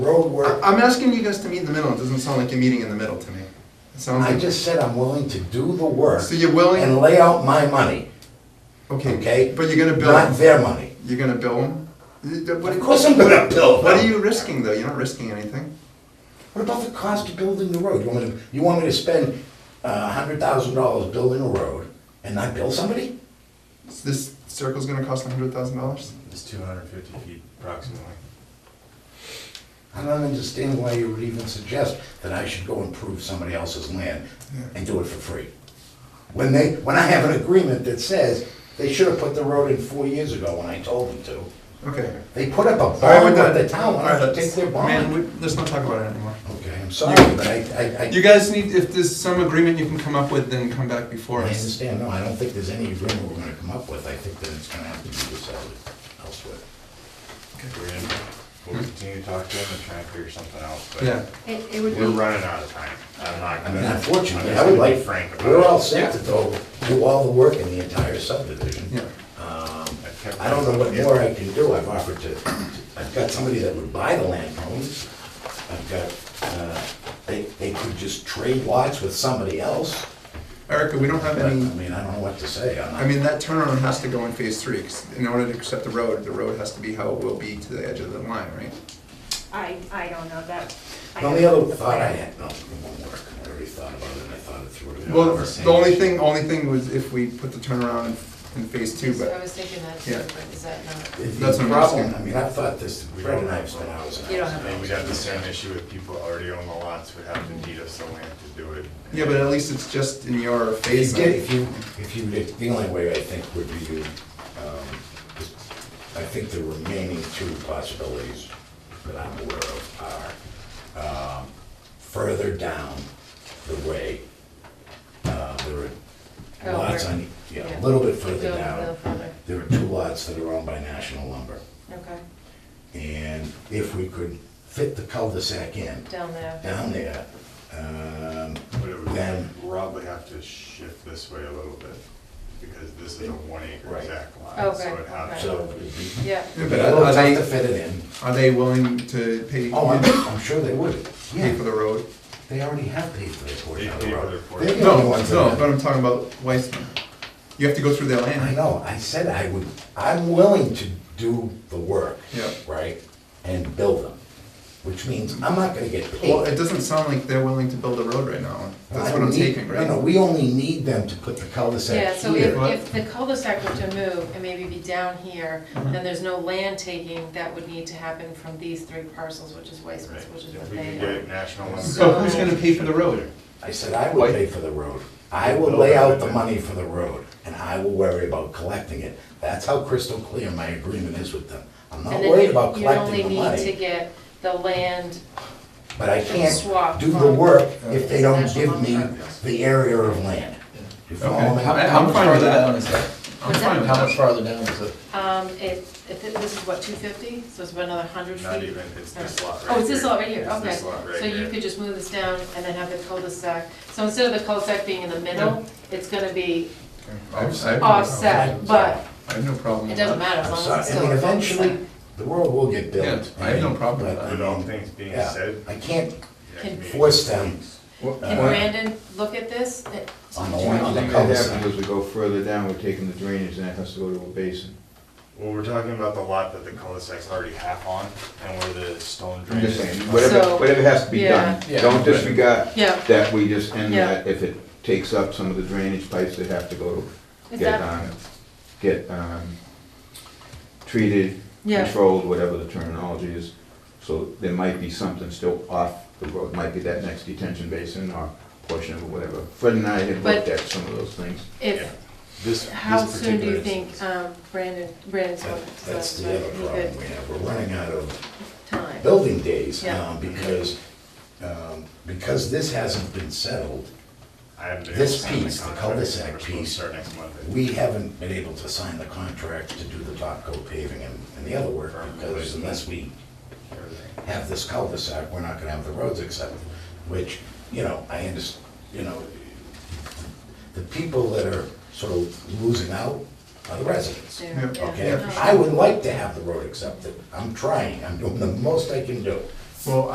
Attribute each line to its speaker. Speaker 1: road
Speaker 2: I-
Speaker 1: work.
Speaker 2: I'm asking you guys to meet in the middle, it doesn't sound like a meeting in the middle to me. It sounds
Speaker 1: I
Speaker 2: like,
Speaker 1: just said I'm willing to do the work.
Speaker 2: So you're willing-
Speaker 1: And lay out my money,
Speaker 2: okay,
Speaker 1: okay?
Speaker 2: but you're gonna bill,
Speaker 1: Not
Speaker 2: them.
Speaker 1: their money.
Speaker 2: you're gonna bill them?
Speaker 1: Of course I'm gonna bill them.
Speaker 2: What are you risking though, you're not risking anything.
Speaker 1: What about the cost of building the road? You want me to, you want me to spend a hundred thousand dollars building a road and not bill somebody?
Speaker 2: So This circle's gonna cost hundred thousand dollars?
Speaker 3: It's two hundred and fifty feet approximately.
Speaker 1: I don't understand why you would even suggest that I should go improve somebody else's land and do it for free. When they, when I have an agreement that says they should have put the road in four years ago when I told them to.
Speaker 2: Okay.
Speaker 1: They put up a
Speaker 2: All right, we're
Speaker 1: bond with
Speaker 2: done.
Speaker 1: the town,
Speaker 2: Oh, All
Speaker 1: why
Speaker 2: right,
Speaker 1: don't they take their
Speaker 2: Man,
Speaker 1: bond?
Speaker 2: we- let's not talk about it anymore.
Speaker 1: Okay, I'm sorry, but I, I, I
Speaker 2: You guys need, if there's some agreement you can come up with, then come back before
Speaker 1: I
Speaker 2: us.
Speaker 1: understand, no, I don't think there's any agreement we're gonna come up with, I think that it's gonna have to be decided elsewhere.
Speaker 3: We're gonna, we'll continue to talk to them and try and figure something out,
Speaker 2: Yeah,
Speaker 3: but
Speaker 4: It, it would
Speaker 3: we're
Speaker 4: be,
Speaker 3: running out of time. I'm not
Speaker 1: I
Speaker 3: gonna.
Speaker 1: mean,
Speaker 3: I'm
Speaker 1: unfortunately,
Speaker 3: just
Speaker 1: I would
Speaker 3: gonna be
Speaker 1: like,
Speaker 3: Frank about
Speaker 1: we're all
Speaker 3: it.
Speaker 1: set to go do all the work in the entire subdivision.
Speaker 2: yeah.
Speaker 1: Um,
Speaker 3: I've kept-
Speaker 1: I don't know what more I can do, I've offered to, I've got somebody that would buy the land homes. I've got, uh, they, they could just trade lots with somebody else.
Speaker 2: Erica, we don't have
Speaker 1: But, I
Speaker 2: any,
Speaker 1: mean, I don't know what to say. I'm not-
Speaker 2: I mean, that turnaround has to go in phase three, 'cause in order to accept the road, the road has to be how it will be to the edge of the line, right?
Speaker 4: I, I don't know that. I
Speaker 1: The only
Speaker 4: don't-
Speaker 1: other thought I had, no, it won't work. I already thought about it and I thought it through.
Speaker 2: Well, the only thing, only thing was if we put the turnaround in phase two,
Speaker 5: Yes, I
Speaker 2: but,
Speaker 5: was thinking that
Speaker 2: Yeah.
Speaker 5: too, but is that not?
Speaker 1: The- the
Speaker 2: That's what I'm asking.
Speaker 1: problem- I mean, I've thought this, Fred and I have spent hours and hours.
Speaker 5: You don't
Speaker 3: And
Speaker 5: have-
Speaker 3: then we'd have the same issue with people already own the lots, would have to deed us the land to do it.
Speaker 2: yeah, but at least it's just in your
Speaker 1: If
Speaker 2: phase.
Speaker 1: you did, if you, if you, did- the only way I think would be to, um, is- I think the remaining two possibilities that I'm aware of are, um, further down the way. Uh, there are
Speaker 5: Oh,
Speaker 1: lots
Speaker 5: where-
Speaker 1: on, yeah, a
Speaker 5: yeah.
Speaker 1: little bit
Speaker 5: Go
Speaker 1: further
Speaker 5: a
Speaker 1: down.
Speaker 5: little further.
Speaker 1: There are two lots that are owned by National Lumber.
Speaker 5: Okay,
Speaker 1: And if we could fit the cul-de-sac in
Speaker 5: down there.
Speaker 1: down there, um,
Speaker 3: But it
Speaker 1: then,
Speaker 3: would probably have to shift this way a little bit, because this is a one acre
Speaker 1: Right.
Speaker 3: exact lot.
Speaker 5: Okay,
Speaker 3: So it'd have
Speaker 5: okay.
Speaker 1: so
Speaker 3: to,
Speaker 1: it'd be
Speaker 5: Yeah,
Speaker 2: Yeah,
Speaker 1: but
Speaker 2: but
Speaker 1: a little
Speaker 2: are
Speaker 1: tough to
Speaker 2: they,
Speaker 1: fit it in.
Speaker 2: are they willing to pay,
Speaker 1: Oh, I'm,
Speaker 2: pay
Speaker 1: I'm sure they would.
Speaker 2: for
Speaker 1: Yeah,
Speaker 2: the road?
Speaker 1: they already have paid for their portion
Speaker 3: They
Speaker 1: of the
Speaker 3: paid for
Speaker 1: road.
Speaker 3: their portion.
Speaker 1: They're the only
Speaker 2: No,
Speaker 1: ones that
Speaker 2: no,
Speaker 1: have-
Speaker 2: but I'm talking about Weissman. You have to go through their
Speaker 1: I
Speaker 2: land.
Speaker 1: know, I said I would, I'm willing to do the work.
Speaker 2: Yeah.
Speaker 1: Right? And build them, which means I'm not gonna get paid.
Speaker 2: Well, it doesn't sound like they're willing to build a road right now. That's
Speaker 1: I
Speaker 2: what I'm
Speaker 1: need-
Speaker 2: taking, right?
Speaker 1: No, no, we only need them to put the cul-de-sac here.
Speaker 5: yeah, so if,
Speaker 2: What?
Speaker 5: if the cul-de-sac were to move and maybe be down here, then there's no land taking that would need to happen from these three parcels, which is Weisman's,
Speaker 3: right,
Speaker 5: which is
Speaker 3: if
Speaker 5: what
Speaker 3: we could
Speaker 5: they.
Speaker 3: get national. lumber-
Speaker 2: So who's gonna pay for the road?
Speaker 1: I said, I
Speaker 2: Why-
Speaker 1: will pay for the road. I will lay out the money for the road, and I will worry about collecting it. That's how crystal clear my agreement is with them. I'm not
Speaker 5: And then
Speaker 1: worried
Speaker 5: you-
Speaker 1: about collecting the
Speaker 5: You only need to
Speaker 1: money,
Speaker 5: get the land,
Speaker 1: but I can't
Speaker 5: swap
Speaker 1: do the
Speaker 5: from-
Speaker 1: work if they don't
Speaker 5: National
Speaker 1: give me
Speaker 5: Lumber.
Speaker 1: the area of land. You follow me?
Speaker 2: Okay. I-
Speaker 6: How
Speaker 2: I'm
Speaker 6: much
Speaker 2: fine with
Speaker 6: farther down
Speaker 2: that.
Speaker 6: is that?
Speaker 2: I'm
Speaker 5: What's that?
Speaker 2: fine with
Speaker 6: How much
Speaker 2: that.
Speaker 6: farther down is it?
Speaker 5: um, it, if it- this is what, two fifty, so it's about another hundred feet?
Speaker 3: Not even, it's this lot right here.
Speaker 5: Oh, it's this lot right here,
Speaker 3: It's
Speaker 5: okay.
Speaker 3: this lot right
Speaker 5: So you
Speaker 3: here.
Speaker 5: could just move this down and then have the cul-de-sac. So instead of the cul-de-sac being in the middle, it's gonna be
Speaker 2: I I have no-
Speaker 5: offset, but
Speaker 2: I have no problem
Speaker 5: it
Speaker 2: with
Speaker 5: doesn't
Speaker 2: that.
Speaker 5: matter as
Speaker 1: I'm
Speaker 5: long as
Speaker 1: sorry,
Speaker 5: it's
Speaker 1: I
Speaker 5: still.
Speaker 1: mean,
Speaker 5: a cul-de-sac.
Speaker 1: eventually, the road will get built.
Speaker 2: Yeah, I have no problem with
Speaker 1: but,
Speaker 2: that.
Speaker 1: I
Speaker 3: With all
Speaker 1: mean,
Speaker 3: things being
Speaker 1: yeah,
Speaker 3: said.
Speaker 1: I can't
Speaker 3: yeah,
Speaker 5: Can-
Speaker 3: maybe-
Speaker 1: force them
Speaker 5: Can
Speaker 2: uh,
Speaker 5: Brandon look at this? It-
Speaker 1: on the
Speaker 7: The
Speaker 1: line, on
Speaker 7: only
Speaker 1: the
Speaker 7: thing that
Speaker 1: cul-de-sac.
Speaker 7: happens is we go further down, we're taking the drainage, and that has to go to a basin.
Speaker 3: Well, we're talking about the lot that the cul-de-sac's already half on, and where the stone
Speaker 7: I'm
Speaker 3: drain
Speaker 7: just
Speaker 3: is.
Speaker 7: saying, whatever,
Speaker 5: So-
Speaker 7: whatever has to be
Speaker 5: Yeah.
Speaker 7: done, don't disregard
Speaker 5: Yeah.
Speaker 7: that we just end
Speaker 5: Yeah.
Speaker 7: that if it takes up some of the drainage pipes that have to go to
Speaker 5: Is
Speaker 7: get,
Speaker 5: that-
Speaker 7: um, get, um, treated,
Speaker 5: Yeah.
Speaker 7: controlled, whatever the terminology is. So there might be something still off the road, might be that next detention basin or portion of whatever. Fred and I had
Speaker 5: But-
Speaker 7: looked at some of those things.
Speaker 3: Yeah.
Speaker 5: If,
Speaker 3: This,
Speaker 5: how
Speaker 3: this
Speaker 5: soon do
Speaker 3: particular
Speaker 5: you think
Speaker 3: instance.
Speaker 5: um, Brandon, Brandon's going
Speaker 1: That-
Speaker 5: to?
Speaker 1: That's the other problem we have, we're running out of
Speaker 5: Time.
Speaker 1: building days
Speaker 5: Yeah.
Speaker 1: um, because, um, because this hasn't been settled,
Speaker 3: I haven't been
Speaker 1: this
Speaker 3: able to sign
Speaker 1: piece, the
Speaker 3: contract.
Speaker 1: cul-de-sac
Speaker 3: We're supposed to
Speaker 1: piece,
Speaker 3: Start next Monday.
Speaker 1: we haven't been able to sign the contract to do the top coat paving and, and the other work because unless we
Speaker 3: Everything.
Speaker 1: have this cul-de-sac, we're not gonna have the roads accepted, which, you know, I understand, you know, the people that are sort of losing out are the residents.
Speaker 5: There, yeah.
Speaker 1: Okay,
Speaker 5: No.
Speaker 1: I would like to have the road accepted, I'm trying, I'm doing the most I can do.
Speaker 2: Well,